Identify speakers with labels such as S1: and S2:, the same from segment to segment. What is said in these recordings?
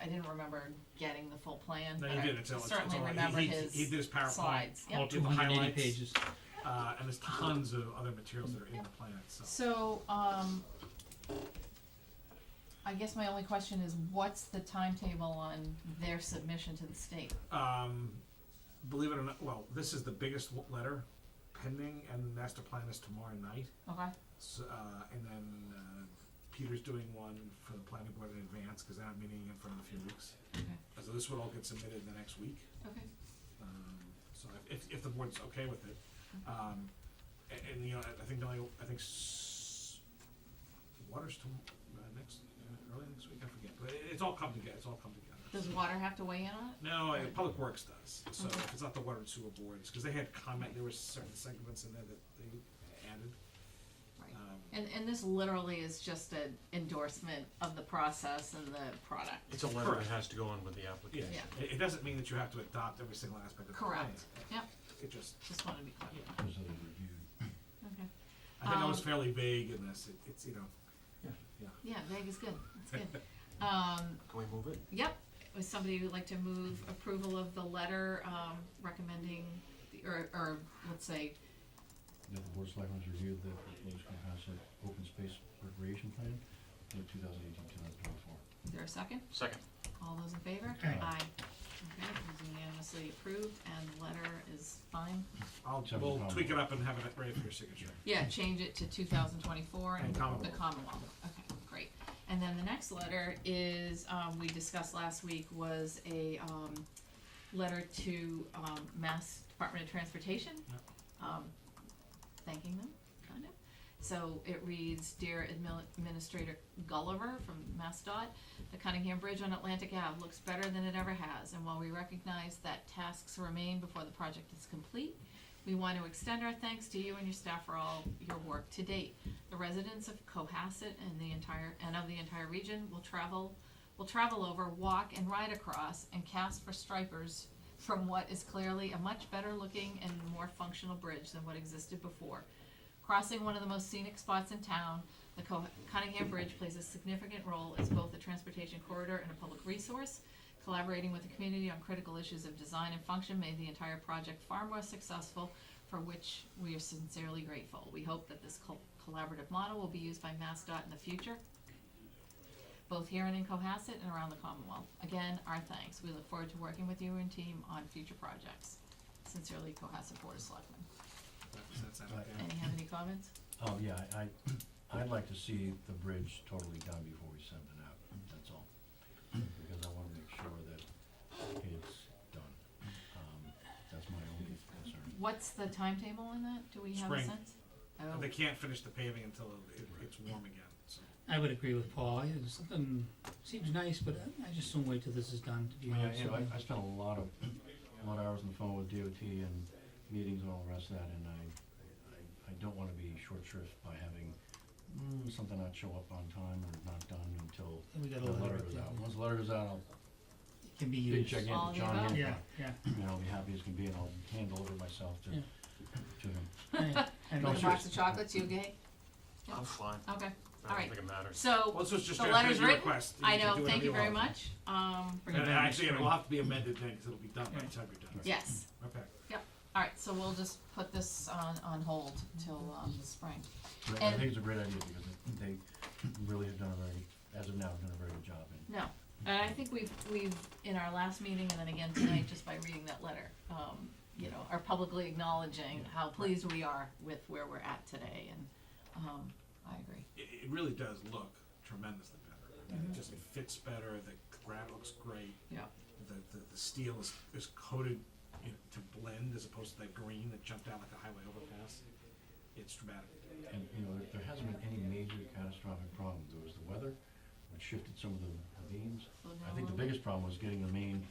S1: I didn't remember getting the full plan,
S2: No,
S1: but
S2: you
S1: I
S2: didn't, it's, it's,
S1: certainly
S2: all- he-
S1: remember
S2: he,
S1: his
S2: he did his PowerPoint,
S1: slides.
S2: all
S1: Yep.
S2: the
S3: Two hundred and eighty
S2: highlights,
S3: pages.
S2: uh, and there's tons of other materials that are in the plan itself.
S1: So, um, I guess my only question is, what's the timetable on their submission to the state?
S2: Um, believe it or not, well, this is the biggest w- letter pending, and the master plan is tomorrow night.
S1: Okay,
S2: So, uh, and then, uh, Peter's doing one for the planning board in advance, cause they're not meeting again for another few weeks.
S1: okay,
S2: So this would all get submitted the next week.
S1: okay.
S2: Um, so if, if, if the board's okay with it, um, a- and, you know, I- I think, the only- I think s- water's to, uh, next, uh, early next week, I forget, but it, it's all come together, it's all come
S1: Does
S2: together.
S1: water have to weigh in on it?
S2: No, uh, Public Works does, so
S1: Mm-hmm.
S2: if it's not the water and sewer boards, cause they had comment, there were certain segments in there that they added,
S1: Right.
S2: um.
S1: And, and this literally is just an endorsement of the process and the product.
S4: It's a letter that
S2: Correct.
S4: has to go on with the
S2: Yeah,
S4: application.
S1: Yeah.
S2: it, it doesn't mean that you have to adopt every single aspect of the plan.
S1: Correct, yep,
S2: It just,
S1: just wanted to be clear, okay.
S2: I think I was
S1: Um,
S2: fairly vague in this, it, it's, you know,
S1: Yeah, vague is good, that's good. Um,
S4: Can we move it?
S1: Yep, would somebody who'd like to move approval of the letter, um, recommending, the- or, or, let's say,
S5: That the board of selectmen's reviewed the proposed comprehensive open space recreation plan for 2018-2024.
S1: is there a second?
S4: Second.
S1: All those in favor?
S5: Aye.
S1: Okay, it was unanimously approved, and the letter is fine.
S2: I'll,
S5: Except for
S2: we'll
S5: Commonwealth.
S2: tweak it up and have it ready for your signature.
S1: Yeah, change it to two thousand twenty-four and
S2: And
S1: the
S2: Commonwealth.
S1: Commonwealth, okay, great. And then the next letter is, um, we discussed last week was a, um, letter to, um, Mass Department of Transportation.
S2: Yep.
S1: Um, thanking them, kind of. So it reads, Dear Admil- Administrator Gulliver from MassDOT, the Cunningham Bridge on Atlantic Ave looks better than it ever has, and while we recognize that tasks remain before the project is complete, we want to extend our thanks to you and your staff for all your work to date. The residents of Cohasset and the entire, and of the entire region will travel, will travel over, walk and ride across, and cast for stripers from what is clearly a much better looking and more functional bridge than what existed before. Crossing one of the most scenic spots in town, the Co- Cunningham Bridge plays a significant role as both a transportation corridor and a public resource. Collaborating with the community on critical issues of design and function made the entire project far more successful, for which we are sincerely grateful. We hope that this col- collaborative model will be used by MassDOT in the future, both here and in Cohasset and around the Commonwealth. Again, our thanks. We look forward to working with you and team on future projects. Sincerely, Cohasset Board of Selectmen.
S2: Does that sound
S5: Right.
S2: okay?
S1: Any have any comments?
S5: Oh, yeah, I, I- I'd like to see the bridge totally done before we send it out, that's all. Because I wanna make sure that it's done. Um, That's my only concern.
S1: What's the timetable on that? Do we have a
S2: Spring.
S1: sense? Oh,
S2: They can't finish the paving until it, it's warm again, so.
S6: I would agree with Paul, I- something seems nice, but I- I just don't wait till this is done, to be
S5: Oh, I mean,
S6: honest
S5: you know,
S6: with you.
S5: I, I spent a lot of, a lot of hours on the phone with DOT and meetings and all the rest of that, and I, I, I don't wanna be short shrift by having, mm, something not show up on time or not done until
S6: We got a
S5: the letter
S6: letter,
S5: goes
S6: yeah,
S5: out. Once the letter goes out, I'll
S6: it can be
S5: big
S6: used.
S5: check in
S1: All of
S5: to
S1: the
S5: John
S1: above?
S5: Hancock.
S6: Yeah, yeah.
S5: You know, I'll be happy as can be, and I'll hand over myself to,
S6: Yeah.
S5: to him.
S6: I- I
S5: No,
S1: A
S6: know.
S5: sure.
S1: box of chocolates, you okay?
S4: I'm fine.
S1: Okay,
S4: I
S1: All
S4: don't
S1: right.
S4: think it matters.
S2: Well,
S1: so,
S2: this was just
S1: the
S2: a
S1: letter's
S2: big
S1: written.
S2: request.
S1: I
S2: can
S1: know,
S2: do
S1: thank
S2: whatever
S1: you very
S2: want.
S1: much, um,
S6: Bring it
S2: And
S6: back
S2: actually,
S6: next
S2: it'll have to be amended then, because it'll be done by the
S6: Yeah.
S2: time you're done.
S1: yes,
S2: Okay.
S1: alright, so we'll just put this on, on hold till, um, the spring.
S5: But I
S1: And-
S5: think it's a great idea, because it- they really have done a very, as of now, have done a very good job, and
S1: No, and I think we've, we've, in our last meeting and then again tonight, just by reading that letter, um, you know, are publicly acknowledging how pleased we are with where we're at today and, um, I agree.
S2: It, it really does look tremendously better. I
S1: Mm-hmm.
S2: mean, It just, it fits better, the granite looks great,
S1: Yeah,
S2: the, the, the steel is, is coated, you know, to blend as opposed to that green that jumped out like a highway overpass. It's dramatic.
S5: and, you know, there, there hasn't been any major catastrophic problem, there was the weather, which shifted some of the beams.
S1: so
S5: I
S1: now
S5: think the
S1: we'll-
S5: biggest problem was getting the main,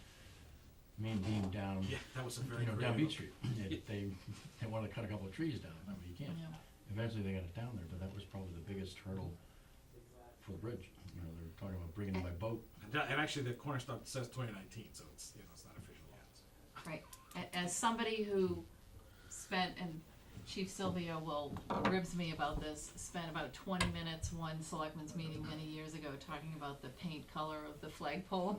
S5: main beam down,
S2: Yeah, that was a very
S5: you know, down
S2: creative-
S5: Beach Street. They- They, they wanted to cut a couple of trees down, I mean, you can't.
S1: Yeah.
S5: Eventually they got it down there, but that was probably the biggest hurdle for the bridge, you know, they were talking about bringing in by boat,
S2: And, that- and actually, the Cornerstone says twenty nineteen, so it's, you know, it's not official yet.
S1: Right, A- as somebody who spent, and Chief Sylvia will, ribs me about this, spent about twenty minutes, one selectmen's meeting many years ago, talking about the paint color of the flagpole